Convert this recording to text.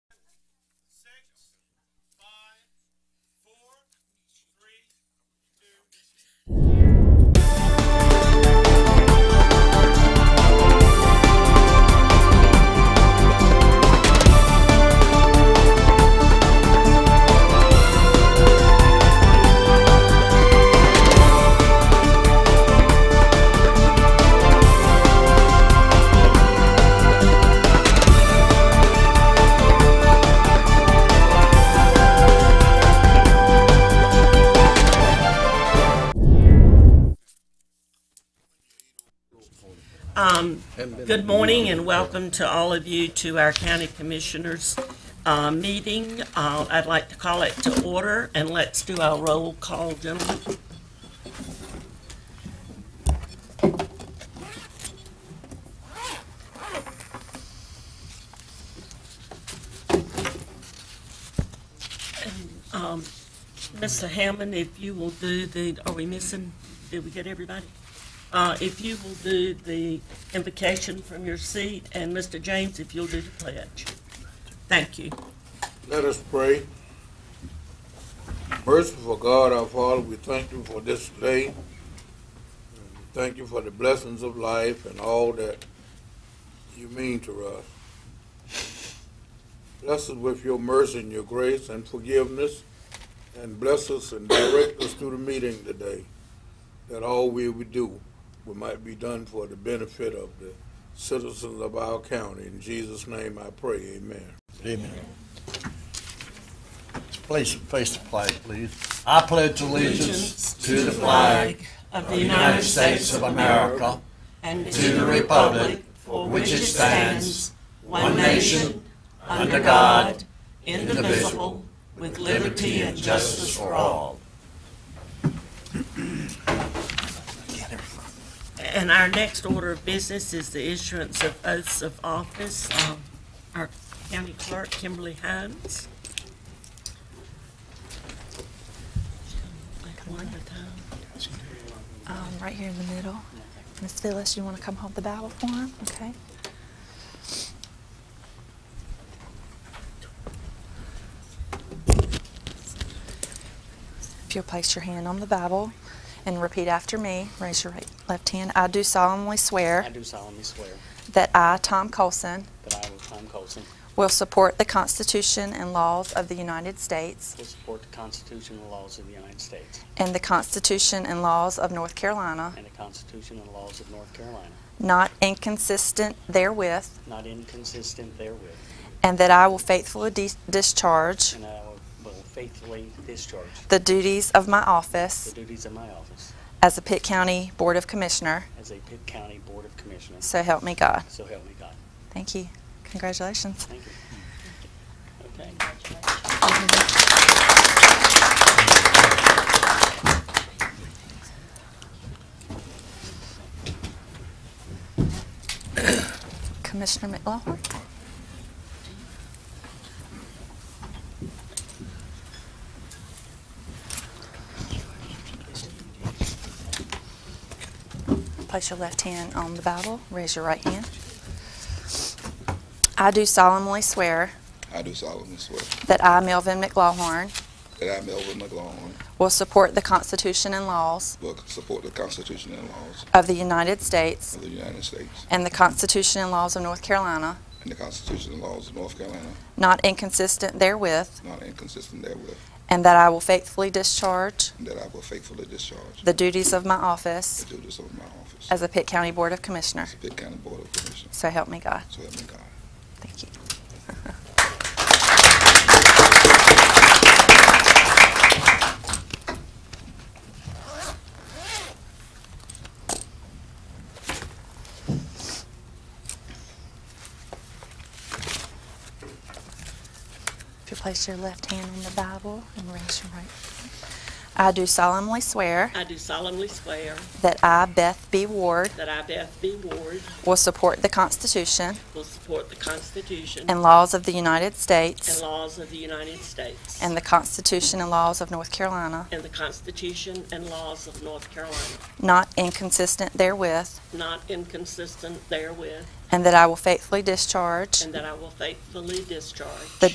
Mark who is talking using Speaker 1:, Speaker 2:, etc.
Speaker 1: Good morning and welcome to all of you to our county commissioners' uh, meeting. Uh, I'd like to call it to order and let's do our roll call, gentlemen. And, um, Mr. Hammond, if you will do the, are we missing, did we get everybody? Uh, If you will do the invocation from your seat, and Mr. James, if you'll do the pledge. Thank you.
Speaker 2: Let us pray. Merciful God, our Father, we thank you for this day. And we Thank you for the blessings of life and all that you mean to us. Bless us with your mercy and your grace and forgiveness, and bless us and direct us through the meeting today, that all we would do we might be done for the benefit of the citizens of our county. In Jesus' name I pray, amen.
Speaker 3: Amen. Place, face the flag, please. I pledge allegiance to the flag
Speaker 1: of
Speaker 3: of the United States of America
Speaker 1: and
Speaker 3: to the republic for which it stands, one nation, under God, indivisible, with liberty and justice for all.
Speaker 1: And our next order of business is the issuance of oaths of office. Um, Our county clerk, Kimberly Hines. One at a time.
Speaker 4: Um, right here in the middle. Miss Phyllis, you want to come hold the Bible for him? Okay. If you'll place your hand on the Bible and repeat after me, raise your right, left hand. I do solemnly
Speaker 5: I
Speaker 4: swear
Speaker 5: do solemnly swear
Speaker 4: that I, Tom Colson,
Speaker 5: that I will, Tom Colson,
Speaker 4: will support the Constitution and laws of the United States
Speaker 5: will support the Constitution and laws of the United States
Speaker 4: and the Constitution and laws of North Carolina,
Speaker 5: and the Constitution and laws of North Carolina,
Speaker 4: not inconsistent therewith,
Speaker 5: not inconsistent therewith,
Speaker 4: And that I will faithfully dis- discharge
Speaker 5: and I will faithfully discharge
Speaker 4: the duties of my
Speaker 5: the
Speaker 4: office
Speaker 5: duties of my office
Speaker 4: as a Pitt County Board of Commissioner.
Speaker 5: as a Pitt County Board of Commissioners.
Speaker 4: So help me God.
Speaker 5: So help me God.
Speaker 4: Thank you. Congratulations.
Speaker 5: Thank you. Okay.
Speaker 4: Commissioner McLaughlin. Place your left hand on the Bible. Raise your right hand. I do solemnly swear
Speaker 6: I do solemnly swear
Speaker 4: that I, Melvin McLaughlin,
Speaker 6: that I, Melvin McLaughlin,
Speaker 4: Will support the Constitution and laws
Speaker 6: will support the Constitution and laws
Speaker 4: of the United States
Speaker 6: of the United States
Speaker 4: and the Constitution and laws of North Carolina,
Speaker 6: and the Constitution and laws of North Carolina,
Speaker 4: not inconsistent therewith,
Speaker 6: not inconsistent therewith,
Speaker 4: and that I will faithfully discharge
Speaker 6: and that I will faithfully discharge
Speaker 4: the duties of my
Speaker 6: the
Speaker 4: office
Speaker 6: duties of my office
Speaker 4: as a Pitt County Board of Commissioner.
Speaker 6: as Pitt County Board of Commissioners.
Speaker 4: So help me God.
Speaker 6: So help me God.
Speaker 4: Thank you. If you place your left hand on the Bible and raise your right. I do solemnly swear
Speaker 1: I do solemnly swear
Speaker 4: that I, Beth B. Ward,
Speaker 1: that I, Beth B. Ward,
Speaker 4: will support the Constitution
Speaker 1: will support the Constitution
Speaker 4: and laws of the United
Speaker 1: and
Speaker 4: States
Speaker 1: laws of the United States
Speaker 4: and the Constitution and laws of North Carolina,
Speaker 1: and the Constitution and laws of North Carolina,
Speaker 4: not inconsistent therewith,
Speaker 1: not inconsistent therewith,
Speaker 4: and that I will faithfully discharge
Speaker 1: and that I will faithfully discharge
Speaker 4: The